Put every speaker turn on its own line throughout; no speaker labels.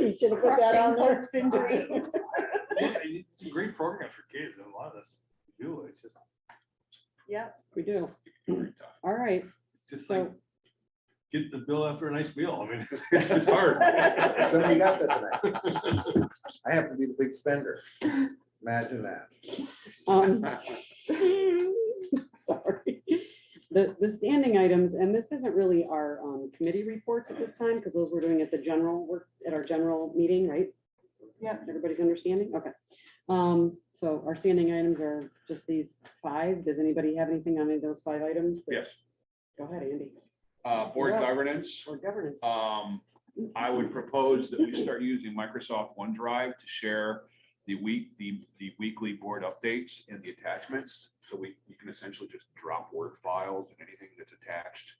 You should have put that on there.
Crushing hopes and dreams.
Yeah, it's a great program for kids, and a lot of this, do, it's just.
Yep,
We do.
It's
All right.
just
So-
like, get the bill after a nice meal, I mean, it's, it's just hard.
Somebody got that tonight. I happen to be the big spender. Imagine that.
Um, Sorry. The, the standing items, and this isn't really our um, committee reports at this time, because those we're doing at the general, work at our general meeting, right?
Yep.
Everybody's understanding? Okay. Um, So our standing items are just these five. Does anybody have anything on any of those five items?
Yes,
Go ahead, Andy,
uh, board
Yeah.
governance.
or governance.
Um, I would propose that we start using Microsoft OneDrive to share the week, the, the weekly board updates and the attachments. So we, you can essentially just drop Word files and anything that's attached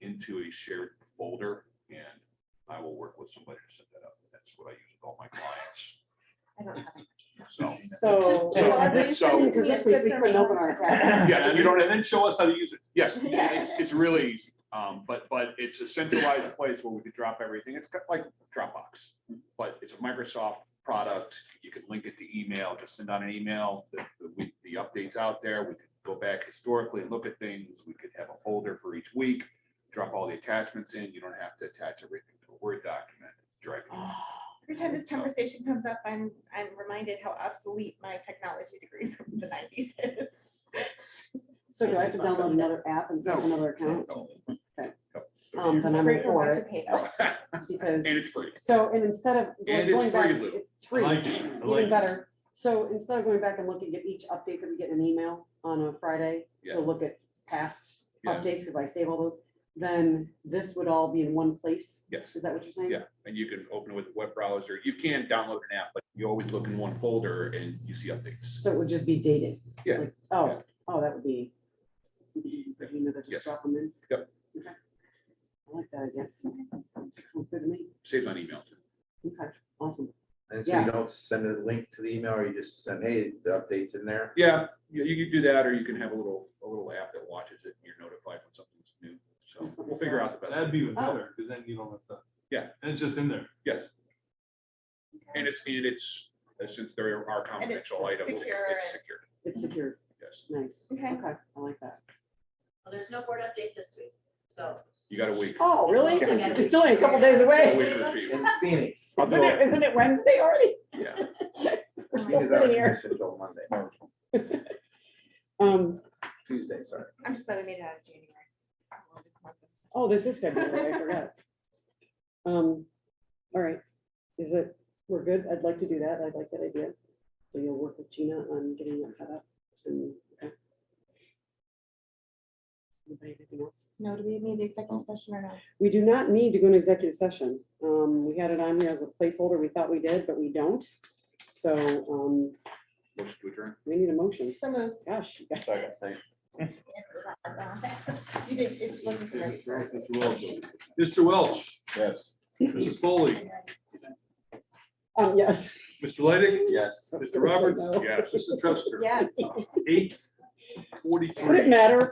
into a shared folder. And I will work with somebody to set that up. That's what I use with all my clients.
I don't have
So,
So.
So- so-
Because this week we couldn't open our attachments.
yes, you don't, and then show us how to use it. Yes,
Yeah.
it's, it's really easy. Um, but, but it's a centralized place where we could drop everything. It's got like Dropbox. But it's a Microsoft product. You could link it to email, just send out an email, the, the, week- the updates out there. We could go back historically and look at things. We could have a folder for each week, drop all the attachments in. You don't have to attach everything to a Word document. It's driving.
Every time this conversation comes up, I'm, I'm reminded how obsolete my technology degree from the nineties is.
So do I have to download another app and set up another account? Um, Then I'm
Free for
for
one to
it,
pay though.
because.
And it's free.
So, and instead of
And
like, going
it's
back,
free, Lou.
it's
I
free,
like it, I like
even
it.
better. So instead of going back and looking at each update that we get in an email on a Friday
Yeah.
to look at past
Yeah.
updates, because I save all those, then this would all be in one place.
Yes.
Is that what you're saying?
Yeah. and you can open it with a web browser. You can download an app, but you always look in one folder and you see updates.
So it would just be dated?
Yeah.
Like, Oh,
Yeah.
oh, that would be. easy for him to
Yes.
Just drop them in?
Yep.
Okay. I like that, I guess. Sounds good to me.
Saves on email.
Okay, awesome.
And so you don't send a link to the email or you just send, hey, the update's in there.
Yeah, you, you could do that, or you can have a little, a little app that watches it and you're notified when something's new. So we'll figure out the best.
That'd be even
Oh.
better, because then you don't have to.
Yeah.
And it's just in there.
Yes, and it's, and it's, uh, since there are confidential items,
secure
it's
and-
secure.
It's secured.
Yes,
Nice.
Okay.
Okay, I like that.
Well, there's no board update this week, so.
you got a week.
Oh, really?
Yeah.
It's only a couple days
A
away.
week for the people.
In Phoenix.
I'll
Isn't
do
it, isn't it Wedday already?
Yeah.
We're still
Phoenix is out of
sitting here.
commission till Monday,
Um,
Tuesday, sorry.
I'm just glad I made it out of January. I will this month.
oh, this is February, I forgot. Um, all right, is it, we're good? I'd like to do that. I'd like that idea. So you'll work with Gina on getting that set up and. okay. Anybody have anything else?
No, do we need executive session or not?
We do not need to go into executive session. Um, we had it on here as a placeholder. We thought we did, but we don't. So, um,
Motion to adjourn.
we need a motion.
Some of.
Gosh, you guys.
You did, it wasn't great.
Mr. Welch. Mr. Welch,
Yes.
Mrs. Foley,
Um, yes.
Mr. Leidig,
Yes.
Mr. Roberts,
No.
Yes.
Mrs. Truster.
Yes.
Eight
Would
forty-three.
it matter if